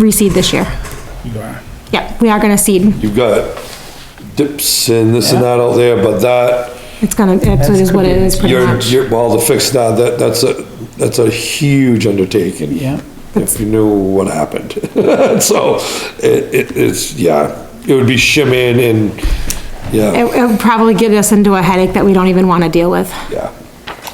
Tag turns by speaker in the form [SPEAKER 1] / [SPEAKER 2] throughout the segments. [SPEAKER 1] reseed this year.
[SPEAKER 2] You are.
[SPEAKER 1] Yeah, we are gonna seed.
[SPEAKER 3] You've got dips and this and that out there, but that,
[SPEAKER 1] It's gonna, it's it is what it is pretty
[SPEAKER 3] you're,
[SPEAKER 1] much.
[SPEAKER 3] you're, well, to fix that, that, that's a, that's a huge undertaking.
[SPEAKER 2] Yeah.
[SPEAKER 3] If you knew what happened. So, it, it, it's, yeah, it would be shimming and, yeah,
[SPEAKER 1] It, it would probably get us into a headache that we don't even wanna deal with,
[SPEAKER 3] yeah.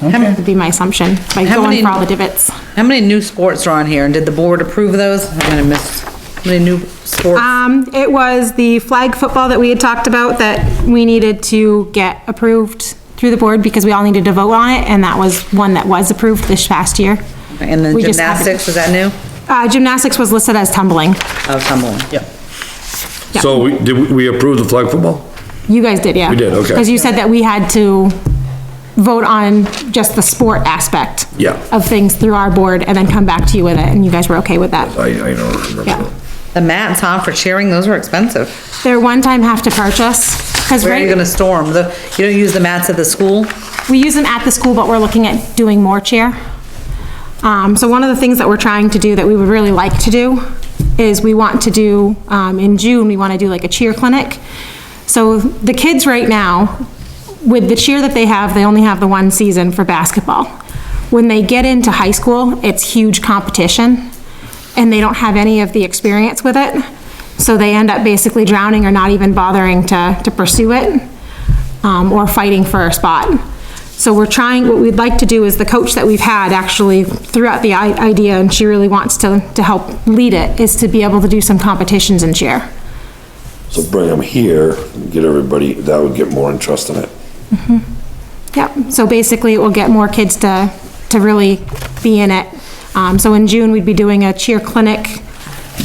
[SPEAKER 1] would be my assumption, by
[SPEAKER 4] How
[SPEAKER 1] going
[SPEAKER 4] many-
[SPEAKER 1] for all the divots.
[SPEAKER 4] How many new sports are on here, and did the board approve those? I'm gonna miss, how many new sports?
[SPEAKER 1] Um, it was the flag football that we had talked about that we needed to get approved through the board because we all needed to vote on it, and that was one that was approved this past year.
[SPEAKER 4] And then
[SPEAKER 1] we just haven't-
[SPEAKER 4] gymnastics, is that new?
[SPEAKER 1] Uh, gymnastics was listed as tumbling.
[SPEAKER 4] Oh, tumbling. Yep.
[SPEAKER 1] Yeah.
[SPEAKER 3] So, we, did, we- we approve the flag football?
[SPEAKER 1] You guys did, yeah.
[SPEAKER 3] We did, okay.
[SPEAKER 1] Because you said that we had to vote on just the sport aspect.
[SPEAKER 3] Yeah.
[SPEAKER 1] Of things through our board and then come back to you with it, and you guys were okay with that.
[SPEAKER 3] I, I don't
[SPEAKER 1] Yeah.
[SPEAKER 3] remember.
[SPEAKER 4] The mats, huh, for cheering, those were expensive.
[SPEAKER 1] They're one-time have to purchase, because
[SPEAKER 4] Where are you
[SPEAKER 1] right,
[SPEAKER 4] gonna store them? The, you don't use the mats at the school?
[SPEAKER 1] we use them at the school, but we're looking at doing more cheer. Um, so one of the things that we're trying to do that we would really like to do is we want to do, um, in June, we want to do like a cheer clinic. So the kids right now, with the cheer that they have, they only have the one season for basketball. When they get into high school, it's huge competition and they don't have any of the experience with it. So they end up basically drowning or not even bothering to, to pursue it, um, or fighting for a spot. So we're trying, what we'd like to do is the coach that we've had actually throughout the i- idea, and she really wants to, to help lead it, is to be able to do some competitions and cheer.
[SPEAKER 3] So bring them here, and get everybody, that would get more interest in it.
[SPEAKER 1] Yep, so basically it will get more kids to, to really be in it. Um, so in June, we'd be doing a cheer clinic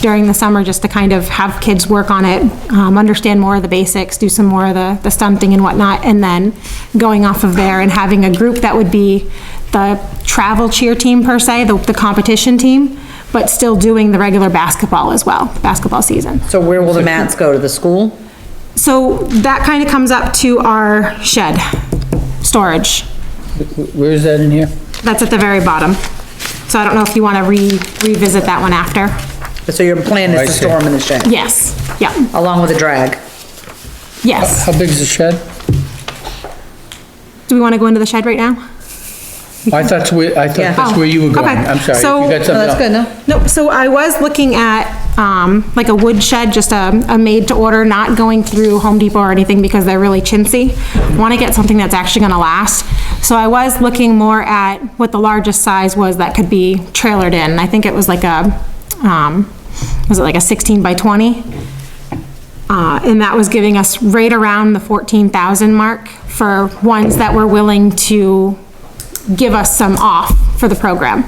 [SPEAKER 1] during the summer, just to kind of have kids work on it, um, understand more of the basics, do some more of the, the stunting and whatnot, and then going off of there and having a group that would be the travel cheer team per se, the, the competition team, but still doing the regular basketball as well, basketball season.
[SPEAKER 4] So where will the mats go? To the school?
[SPEAKER 1] So that kind of comes up to our shed, storage.
[SPEAKER 2] Where is that in here?
[SPEAKER 1] That's at the very bottom. So I don't know if you want to re, revisit that one after.
[SPEAKER 4] So your plan
[SPEAKER 2] I
[SPEAKER 4] is to
[SPEAKER 2] see.
[SPEAKER 4] store them in the shed,
[SPEAKER 1] Yes, yeah,
[SPEAKER 4] along with a drag?
[SPEAKER 1] yes.
[SPEAKER 2] How big is the shed?
[SPEAKER 1] Do we want to go into the shed right now?
[SPEAKER 2] I thought that's where, I thought that's where you were going.
[SPEAKER 1] Oh, okay.
[SPEAKER 2] I'm sorry.
[SPEAKER 1] So-
[SPEAKER 2] You
[SPEAKER 1] No,
[SPEAKER 2] got
[SPEAKER 4] No,
[SPEAKER 2] something
[SPEAKER 4] that's good,
[SPEAKER 2] else?
[SPEAKER 4] no?
[SPEAKER 1] Nope, so I was looking at, um, like a wood shed, just a, a made to order, not going through Home Depot or anything because they're really chintzy. Want to get something that's actually going to last. So I was looking more at what the largest size was that could be trailered in. I think it was like a, um, was it like a 16 by 20? Uh, and that was giving us right around the 14,000 mark for ones that were willing to give us some off for the program.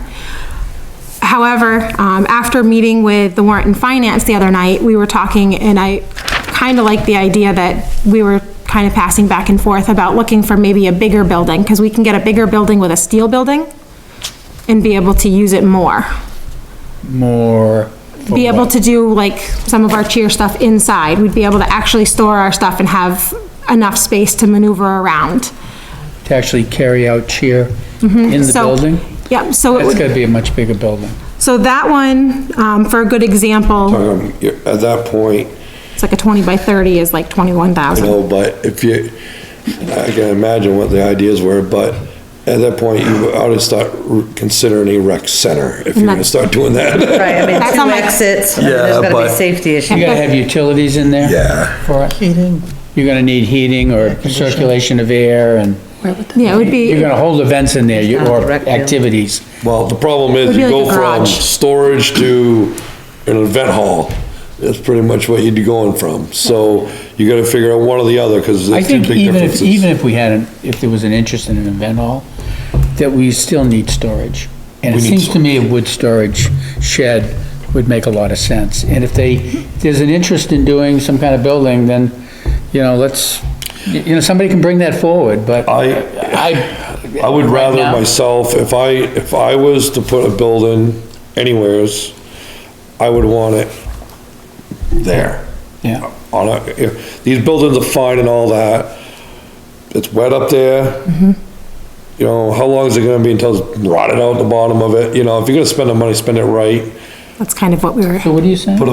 [SPEAKER 1] However, um, after meeting with the warrant and finance the other night, we were talking, and I kind of like the idea that we were kind of passing back and forth about looking for maybe a bigger building, because we can get a bigger building with a steel building and be able to use it more.
[SPEAKER 2] More. for
[SPEAKER 1] Be able
[SPEAKER 2] what?
[SPEAKER 1] to do like some of our cheer stuff inside. We'd be able to actually store our stuff and have enough space to maneuver around.
[SPEAKER 2] To actually carry out cheer in the
[SPEAKER 1] Mm-hmm. So-
[SPEAKER 2] building?
[SPEAKER 1] Yep, so it
[SPEAKER 2] That's
[SPEAKER 1] would,
[SPEAKER 2] gotta be a much bigger building.
[SPEAKER 1] so that one, um, for a good example,
[SPEAKER 3] Um, you're- at that point,
[SPEAKER 1] it's like a 20 by 30 is like 21,000.
[SPEAKER 3] you know, but if you, I can imagine what the ideas were, but at that point, you ought to start considering a rec center if you're gonna start doing that.
[SPEAKER 4] Right, I mean,
[SPEAKER 1] That's on
[SPEAKER 4] two
[SPEAKER 1] my-
[SPEAKER 4] exits, and
[SPEAKER 3] Yeah,
[SPEAKER 4] there's gotta
[SPEAKER 3] but-
[SPEAKER 4] be safety issues.
[SPEAKER 2] You gotta have utilities in there?
[SPEAKER 3] Yeah.
[SPEAKER 2] For it? Heating. You're gonna need heating or circulation of air and
[SPEAKER 1] Yeah, it would be.
[SPEAKER 2] you're gonna hold events in there you- or
[SPEAKER 4] Direct view.
[SPEAKER 2] activities.
[SPEAKER 3] Well, the problem is
[SPEAKER 1] Would be
[SPEAKER 3] you
[SPEAKER 1] like
[SPEAKER 3] go
[SPEAKER 1] a
[SPEAKER 3] from
[SPEAKER 1] garage.
[SPEAKER 3] storage to an event hall. That's pretty much what you'd be going from. So you gotta figure out one or the other, cause
[SPEAKER 2] I
[SPEAKER 3] there's two
[SPEAKER 2] think
[SPEAKER 3] big
[SPEAKER 2] even if,
[SPEAKER 3] differences.
[SPEAKER 2] even if we had, an if there was an interest in an event hall, that we still need storage. And it
[SPEAKER 3] need
[SPEAKER 2] seems to me a wood storage shed would make a lot of sense. And if they, if there's an interest in doing some kind of building, then, you know, let's, you you know, somebody can bring that forward, but
[SPEAKER 3] I,
[SPEAKER 2] I.
[SPEAKER 3] I would rather
[SPEAKER 2] now-
[SPEAKER 3] myself, if I, if I was to put a building anywheres, I would want it there.
[SPEAKER 2] Yeah,
[SPEAKER 3] On a, if, these buildings are fine and all that, it's wet up there. You know, how long is it gonna be until it's rotted out the bottom of it? You know, if you're gonna spend the money, spend it right.
[SPEAKER 5] That's kind of what we were.
[SPEAKER 1] So what are you saying?
[SPEAKER 2] Put a